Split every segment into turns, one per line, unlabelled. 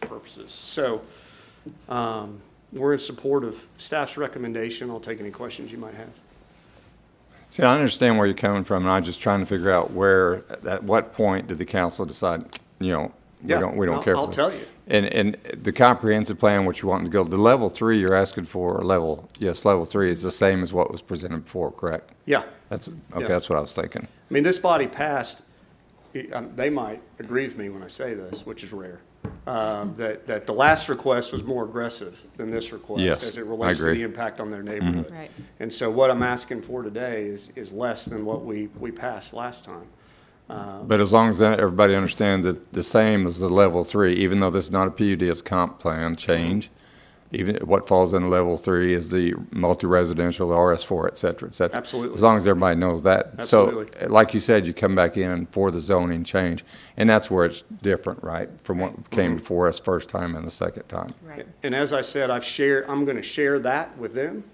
purposes. So um, we're in support of staff's recommendation. I'll take any questions you might have.
See, I understand where you're coming from, and I'm just trying to figure out where, at what point did the council decide, you know, we
Yeah,
don't, we don't
I'll-
care for
I'll
this?
tell you.
And, and the comprehensive plan, what you want to go, the level three you're asking for, or level, yes, level three is the same as what was presented before, correct?
Yeah,
That's,
Yeah.
okay, that's what I was thinking.
I mean, this body passed, it- um, they might agree with me when I say this, which is rare, uh,
Mm-hmm.
that, that the last request was more aggressive than this request.
Yes,
As it
I
relates to
agree. Mm-hmm.
the impact on their neighborhood.
Right.
And so what I'm asking for today is, is less than what we, we passed last time.
But as long as that- everybody understands that the same as the level three, even though this is not a PUD, it's comp plan change, even what falls in level three is the multi-residential, the RS four, et cetera, et cetera.
Absolutely.
As long as everybody knows that.
Absolutely.
So, like you said, you come back in for the zoning change, and that's where it's different, right? From what came
Mm-hmm.
before us first time and the second time.
Right.
And as I said, I've shared, I'm going to share that with them.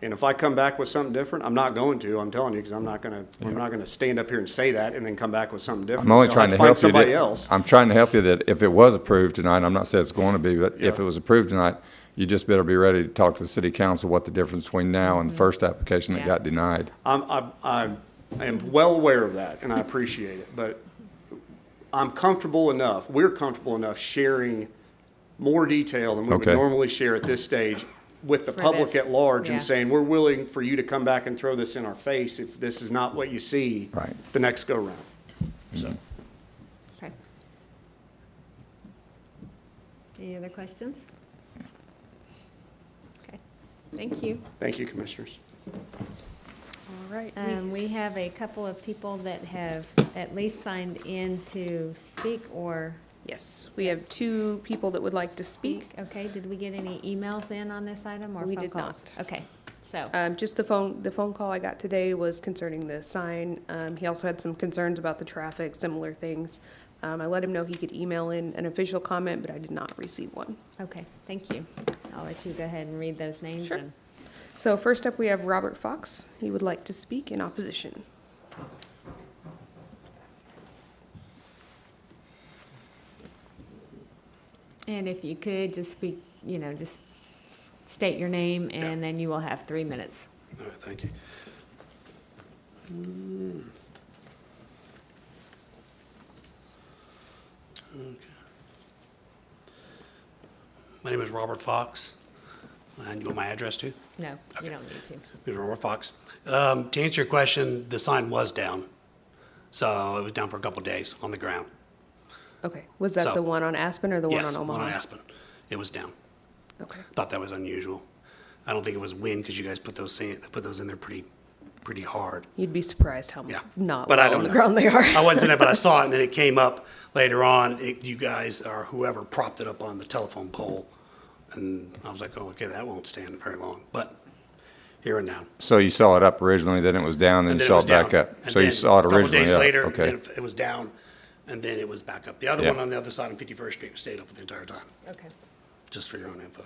And if I come back with something different, I'm not going to, I'm telling you, because I'm not going to, I'm not going to stand up here and say that and then come back with something different.
I'm only
They'll
trying to
have find
help you. that-
Somebody else.
I'm trying to help you that if it was approved tonight, I'm not saying it's going to be, but if
Yeah.
it was approved tonight, you just better be ready to talk to the city council what the difference between now and the first application that
Yeah.
got denied.
I'm, I'm- I'm, I am well aware of that and I appreciate it, but I'm comfortable enough, we're comfortable enough sharing more detail than we would
Okay.
normally share at this stage with the
For
public
this,
at large and
yeah.
saying, we're willing for you to come back and throw this in our face if this is not what you see
Right. Mm-hmm.
the next go round. So.
Okay. Any other questions? Okay, thank you.
Thank you, Commissioners.
All right, we-
Um, We have a couple of people that have at least signed in to speak or
yes, we have two people that would like to
speak.
speak.
Okay, did we get any emails in on this item or
We
phone
did
calls? Okay, so,
Um, Just the phone, the phone call I got today was concerning the sign. Um, He also had some concerns about the traffic, similar things. Um, I let him know he could email in an official comment, but I did not receive one.
okay, thank you. I'll let you go ahead and read those names
Sure.
and
So first up, we have Robert Fox. He would like to speak in opposition.
And if you could, just speak, you know, just s- state your name, and then you will have three minutes.
All right, thank you. Mm.
Okay. My name is Robert Fox, and you want my address too?
No, you don't need to.
It's Robert Fox. Um, To answer your question, the sign was down, so it was down for a couple days on the ground.
Okay, was that
So-
the one on Aspen or the one on
Yes,
Omaha?
one on Aspen. It was down.
Okay,
Thought that was unusual. I don't think it was wind, because you guys put those, sand- put those in there pretty, pretty hard.
you'd be surprised how
Yeah.
not
But I
well on
don't
the
know.
ground they are.
I wasn't in it, but I saw it, and then it came up later on. It, you guys or whoever propped it up on the telephone pole, and I was like, "Oh, okay, that won't stand very long." But here and now,
So you saw it up originally, then it was down, then
and
you
then
saw
was
it back
down.
up.
And
So you
then
saw it
a couple
originally
days
up,
later,
okay.
then it- it was down, and then it was back up. The other
Yeah.
one on the other side on Fifty First Street stayed up the entire time
Okay.
just for your own info.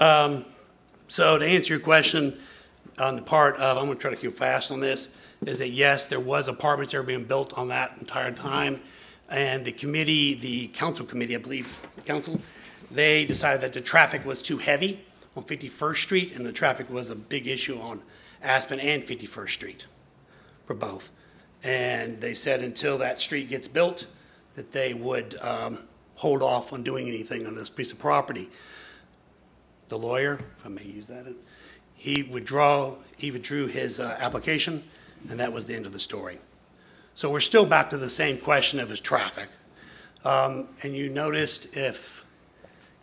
Um, So to answer your question, on the part of, I'm gonna try to keep fast on this, is that yes, there was apartments that were being built on that entire time. And the committee, the council committee, I believe, council, they decided that the traffic was too heavy on 51st Street, and the traffic was a big issue on Aspen and 51st Street for both. And they said until that street gets built, that they would um, hold off on doing anything on this piece of property. The lawyer, if I may use that, he withdraw, he withdrew his uh, application, and that was the end of the story. So we're still back to the same question of his traffic. Um, And you noticed if,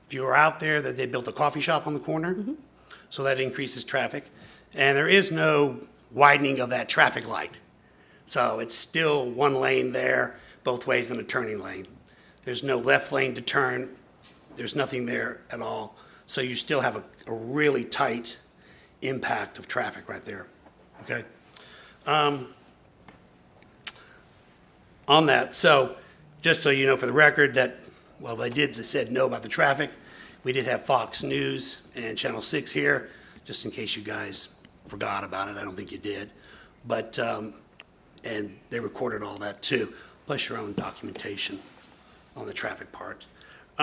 if you were out there, that they built a coffee shop on the corner? so that increases traffic. And there is no widening of that traffic light. So it's still one lane there, both ways in a turning lane. There's no left lane to turn, there's nothing there at all. So you still have a, a really tight impact of traffic right there, okay? on that. So, just so you know for the record, that, well, they did, they said no about the traffic. We did have Fox News and Channel 6 here, just in case you guys forgot about it. I don't think you did. But, um, and they recorded all that too, plus your own documentation on the traffic part.